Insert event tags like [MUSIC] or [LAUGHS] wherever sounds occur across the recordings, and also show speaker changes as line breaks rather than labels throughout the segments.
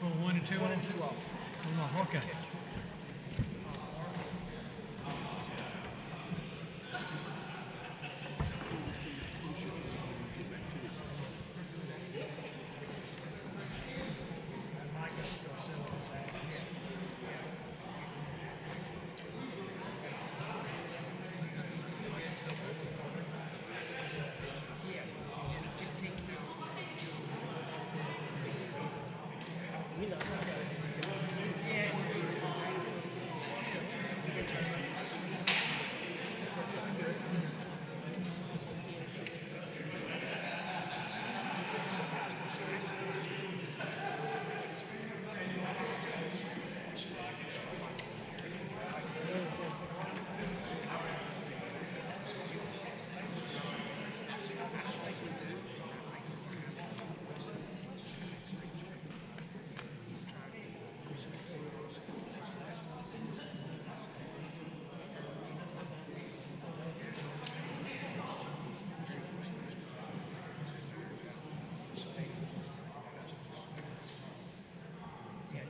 pull one and two
One
off?
and two off.
One off, okay.
That mic goes to our cylinders, I guess.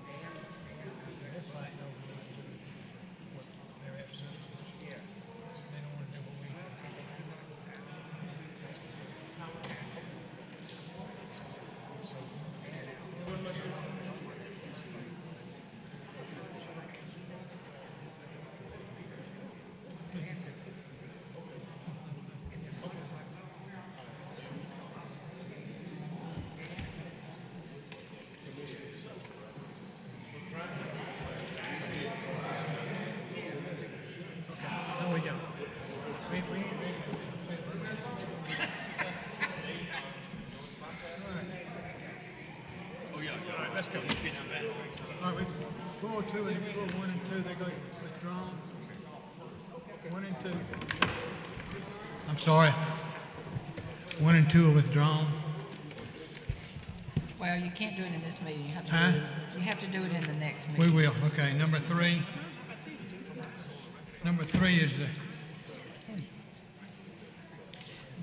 They're fighting over what they do, what their episodes are. They don't wanna do what we No, we don't. We, we,
Oh, yeah, all right, let's go.
all right, we, pull two and pull one and two, they're going to withdraw. One and two. I'm sorry. One and two are withdrawn.
Well, you can't do it in this meeting, you have to
Huh?
do it, you have to do it in the next
We
meeting.
will, okay, number three. Number three is the,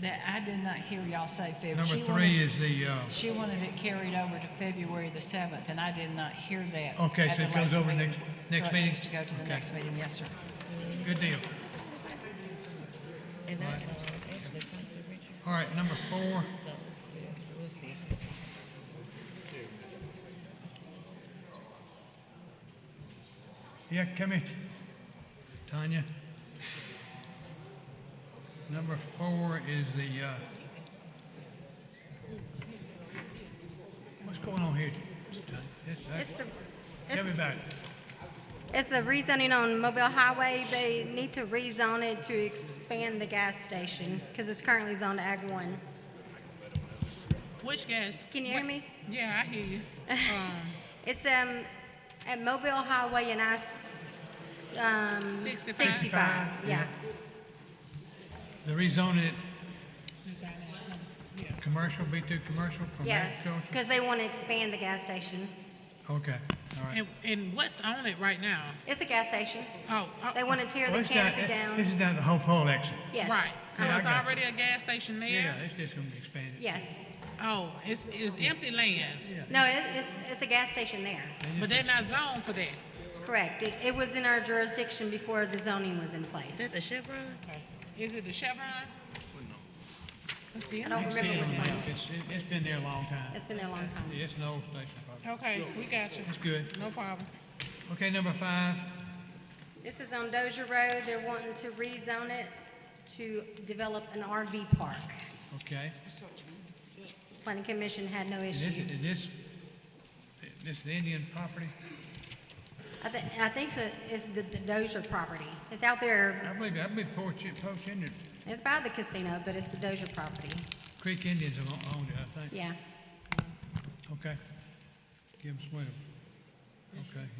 That, I did not hear y'all say February.
number three is the, uh,
She wanted it carried over to February the seventh, and I did not hear that.
Okay,
at
so
the
it goes
last
over
meeting.
next- next
So it
meeting?
needs to go to the
Okay.
next meeting, yes, sir.
good deal.
And I, uh, actually talked to Richard,
All right, number four.
so, yeah, we'll see.
Yeah, come here, Tanya. Number four is the, uh, what's going on here? Tanya?
It's
It's, uh,
the,
Tell
it's,
me about it.
it's the rezoning on Mobile Highway. They need to rezone it to expand the gas station because it's currently zoned Ag One.
Which gas?
Can you hear
what-
me?
Yeah, I
[LAUGHS]
hear you. Um,
It's, um, at Mobile Highway and I, s- s- um,
65.
sixty-five, yeah.
The rezoning it, commercial, B two commercial from
Yeah,
agriculture?
because they want to expand the gas station.
Okay, all right.
and, and what's on it right now?
It's a gas station.
Oh, oh,
They want to tear
Well,
the
it's down-
canopy
This
down.
is down the Hope Hall exit.
Yes. Uh,
right. So
Yeah, I
it's
got you.
already a gas station there.
Yeah, it's just gonna be expanded.
Yes.
Oh, it's, it's empty land,
No, it, it's, it's a gas station there.
but they're not zoned for that.
Correct. It, it was in our jurisdiction before the zoning was in place.
That's a Chevron?
Is it the Chevron? Let's see.
I don't
It's,
remember which one.
it's, it's been there a long time.
It's Oh. been there a long time.
Yeah, It's an old station probably.
Okay, we got you.
It's good.
No problem.
Okay, number five,
This is on Dozier Road. They're wanting to rezone it to develop an RV park.
okay.
Planning Commission had no
Is
issue.
this, is this, this is Indian property?
I think, I think so- it's the the Dozier property. It's out there,
I believe, I believe Port, Chi- Port Indian,
it's by the casino, but it's the Dozier property.
Creek Indians have o- owned it, I think.
Yeah.
Okay. Give them some, okay, yeah.